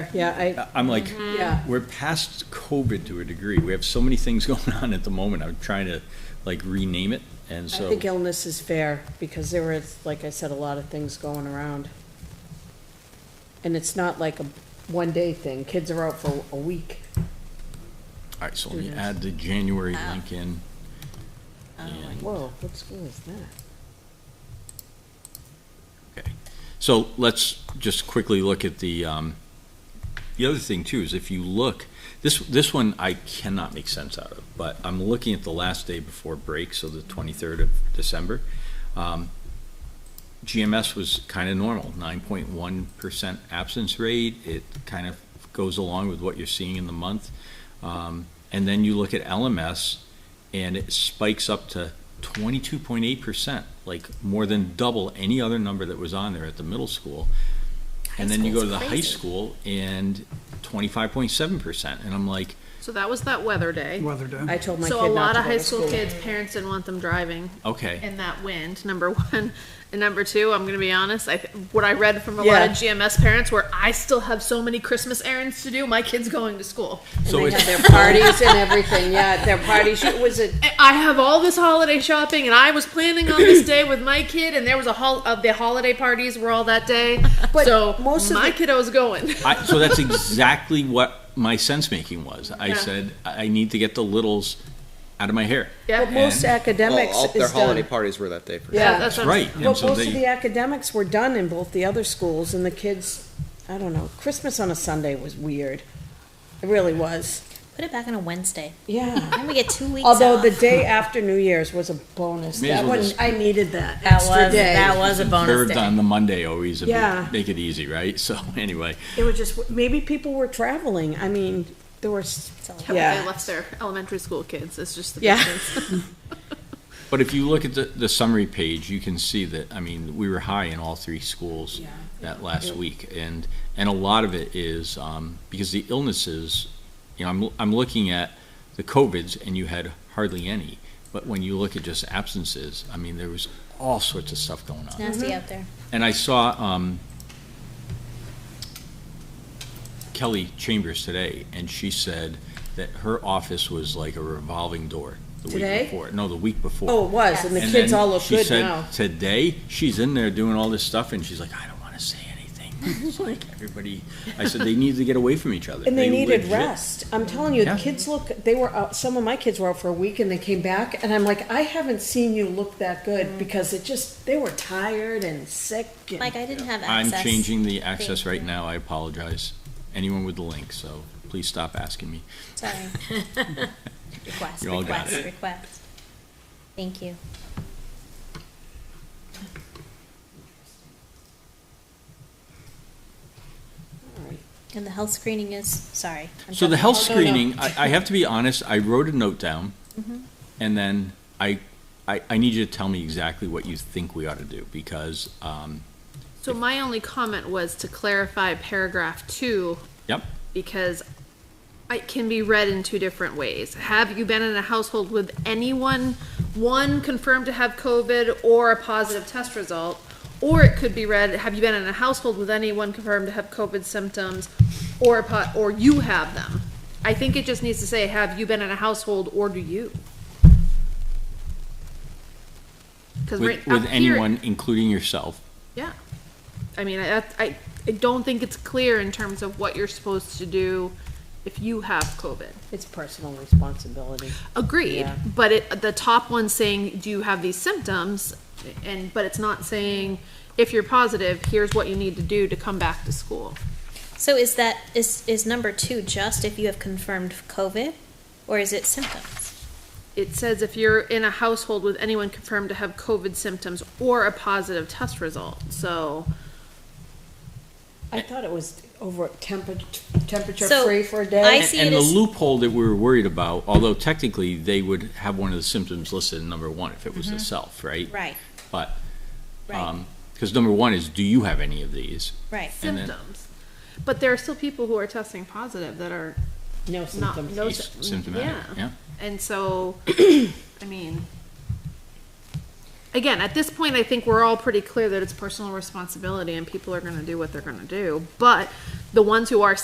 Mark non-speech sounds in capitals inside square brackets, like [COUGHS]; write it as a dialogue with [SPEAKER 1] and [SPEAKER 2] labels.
[SPEAKER 1] Yeah, I,
[SPEAKER 2] Uh, I'm like,
[SPEAKER 1] yeah,
[SPEAKER 2] we're past COVID to a degree. We have so many things [LAUGHS] going on at the moment. I'm trying to like rename it, and
[SPEAKER 1] I
[SPEAKER 2] so.
[SPEAKER 1] think illness is fair, because there was, like I said, a lot of things going around. And it's not like a one-day thing, kids are out for a week.
[SPEAKER 2] All right, so let me add the January link in.
[SPEAKER 1] Oh.
[SPEAKER 2] And-
[SPEAKER 1] Whoa, what school is that?
[SPEAKER 2] Okay, so let's just quickly look at the, um, the other thing too is if you look, this, this one I cannot make sense out of, but I'm looking at the last day before break, so the twenty-third of December. Um, GMS was kind of normal, nine point one percent absence rate. It kind of goes along with what you're seeing in the month. Um, and then you look at LMS and it spikes up to twenty-two point eight percent, like more than double any other number that was on there at the middle school. And then you go to the high school and twenty-five point seven percent. And I'm like,
[SPEAKER 3] So that was that weather day.
[SPEAKER 4] Weather
[SPEAKER 2] Mm.
[SPEAKER 4] day.
[SPEAKER 1] I told my kid
[SPEAKER 3] So a
[SPEAKER 1] not
[SPEAKER 3] lot
[SPEAKER 1] to
[SPEAKER 3] of
[SPEAKER 1] go
[SPEAKER 3] high
[SPEAKER 1] to
[SPEAKER 3] school
[SPEAKER 1] school.
[SPEAKER 3] kids, parents didn't want them driving
[SPEAKER 2] okay,
[SPEAKER 3] in that wind, number [LAUGHS] one. And number two, I'm gonna be honest, I, th- what I read from a lot
[SPEAKER 1] Yeah.
[SPEAKER 3] of GMS parents were, I still have so many Christmas errands to do, my kid's going to school.
[SPEAKER 2] so
[SPEAKER 1] And they
[SPEAKER 2] it's,
[SPEAKER 1] had their parties and everything, yeah, their parties, it was a,
[SPEAKER 3] I- I have all this holiday shopping and I was planning on
[SPEAKER 1] [COUGHS]
[SPEAKER 3] this day with my kid and there was a hol- of the holiday parties were all that day.
[SPEAKER 1] [LAUGHS] But
[SPEAKER 3] So
[SPEAKER 1] most of
[SPEAKER 3] my
[SPEAKER 1] the-
[SPEAKER 3] kiddo's going. [LAUGHS]
[SPEAKER 2] I, so that's exactly what my sense making was. I
[SPEAKER 3] Yeah.
[SPEAKER 2] said, I I need to get the littles out of my hair.
[SPEAKER 3] Yeah.
[SPEAKER 1] but most
[SPEAKER 2] And-
[SPEAKER 1] academics
[SPEAKER 5] all their
[SPEAKER 1] is
[SPEAKER 5] holiday
[SPEAKER 1] done.
[SPEAKER 5] parties were that day for
[SPEAKER 1] Yeah.
[SPEAKER 3] That's what I'm-
[SPEAKER 2] Right. and
[SPEAKER 1] But
[SPEAKER 2] so
[SPEAKER 1] most of
[SPEAKER 2] they-
[SPEAKER 1] the academics were done in both the other schools, and the kids, I don't know, Christmas on a Sunday was weird. It really was,
[SPEAKER 6] Put it back on a Wednesday.
[SPEAKER 1] yeah.
[SPEAKER 6] Then we get two weeks.
[SPEAKER 1] Although
[SPEAKER 6] off.
[SPEAKER 1] the day after New Year's was a bonus.
[SPEAKER 2] May as
[SPEAKER 1] That
[SPEAKER 2] well
[SPEAKER 1] one,
[SPEAKER 2] just-
[SPEAKER 1] I needed that
[SPEAKER 6] that
[SPEAKER 1] extra
[SPEAKER 6] was that
[SPEAKER 1] day.
[SPEAKER 6] was a bonus
[SPEAKER 2] Curved
[SPEAKER 6] day.
[SPEAKER 2] on the Monday always, and
[SPEAKER 1] Yeah.
[SPEAKER 2] make it easy, right? [LAUGHS] So anyway,
[SPEAKER 1] It was just, maybe people were traveling. I mean, there were, s-
[SPEAKER 3] How
[SPEAKER 1] yeah.
[SPEAKER 3] They left their elementary school kids, it's just the
[SPEAKER 1] Yeah.
[SPEAKER 3] difference.
[SPEAKER 2] but if you look at the, the summary page, you can see that, I mean, we were high in all three schools that last week. And, and a lot of it is, um, because the illnesses, you know, I'm, I'm looking at the COVIDs and you had hardly any. But when you look at just absences, I mean, there was all sorts of stuff going on.
[SPEAKER 6] Nasty
[SPEAKER 1] Mm-hmm.
[SPEAKER 6] out there.
[SPEAKER 2] And I saw um, Kelly Chambers today, and she said that her office was like a revolving door the
[SPEAKER 1] Today?
[SPEAKER 2] week before. No, the week before.
[SPEAKER 1] Oh, it was, and the
[SPEAKER 2] And
[SPEAKER 1] kids
[SPEAKER 2] then
[SPEAKER 1] all look
[SPEAKER 2] she
[SPEAKER 1] good
[SPEAKER 2] said
[SPEAKER 1] now.
[SPEAKER 2] Today, she's in there doing all this stuff, and she's like, I don't want to say anything. [LAUGHS] It's like everybody. I said they need to get away from each other.
[SPEAKER 1] And they needed
[SPEAKER 2] legit-
[SPEAKER 1] rest. I'm telling you, the
[SPEAKER 2] Yeah.
[SPEAKER 1] kids look, they were out, some of my kids were out for a week and they came back and I'm like, I haven't seen you look that good because it just, they were tired and sick. and-
[SPEAKER 6] Mm. Like I didn't have
[SPEAKER 2] I'm
[SPEAKER 6] access.
[SPEAKER 2] changing the access
[SPEAKER 6] Thank
[SPEAKER 2] right
[SPEAKER 6] you.
[SPEAKER 2] now. I apologize. Anyone with the link, so please stop asking me. [LAUGHS]
[SPEAKER 6] Sorry. request.
[SPEAKER 2] You all got
[SPEAKER 6] request. Request. Thank you. And the health screening is sorry. I'm
[SPEAKER 2] So the
[SPEAKER 6] jumping.
[SPEAKER 2] health
[SPEAKER 1] Oh, no, no.
[SPEAKER 2] screening, uh, I, I have to be honest, I wrote a note down,
[SPEAKER 6] Mm-hmm.
[SPEAKER 2] and then I, I, I need you to tell me exactly what you think we ought to do, because, um,
[SPEAKER 3] So my only comment was to clarify paragraph two
[SPEAKER 2] yep,
[SPEAKER 3] because it can be read in two different ways. Have you been in a household with anyone, one confirmed to have COVID or a positive test result? Or it could be read, have you been in a household with anyone confirmed to have COVID symptoms or a pot, or you have them? I think it just needs to say, have you been in a household or do you? Cause right
[SPEAKER 2] with,
[SPEAKER 3] up
[SPEAKER 2] with
[SPEAKER 3] here-
[SPEAKER 2] anyone, including yourself.
[SPEAKER 3] yeah. I mean, I, that's- I, I don't think it's clear in terms of what you're supposed to do if you have COVID.
[SPEAKER 1] It's personal responsibility.
[SPEAKER 3] Agreed,
[SPEAKER 1] Yeah.
[SPEAKER 3] but it, the top one's saying, do you have these symptoms? And, but it's not saying, if you're positive, here's what you need to do to come back to school.
[SPEAKER 6] So is that is is number two just if you have confirmed COVID, or is it symptoms?
[SPEAKER 3] It says if you're in a household with anyone confirmed to have COVID symptoms or a positive test result, so.
[SPEAKER 1] I thought it was over temperature, temperature
[SPEAKER 6] So,
[SPEAKER 1] free for a day.
[SPEAKER 6] I
[SPEAKER 2] And-
[SPEAKER 6] see
[SPEAKER 2] And
[SPEAKER 6] it
[SPEAKER 2] the
[SPEAKER 6] as
[SPEAKER 2] loophole that we were worried about, although technically, they would have one of the symptoms listed in number one if it was the self, right?
[SPEAKER 6] Mm-hmm. right,
[SPEAKER 2] But,
[SPEAKER 6] right,
[SPEAKER 2] um 'cause because number one is, do you have any of these?
[SPEAKER 6] right.
[SPEAKER 2] And then-
[SPEAKER 3] Symptoms. But there are still people who are testing positive that are
[SPEAKER 1] No
[SPEAKER 3] not,
[SPEAKER 1] symptoms.
[SPEAKER 3] no.
[SPEAKER 2] He's
[SPEAKER 6] Mm,
[SPEAKER 3] sy-
[SPEAKER 2] symptomatic, yeah.
[SPEAKER 3] And so, I mean, again, at this point, I think we're all pretty clear that it's personal responsibility and people are gonna do what they're gonna do. But the ones who are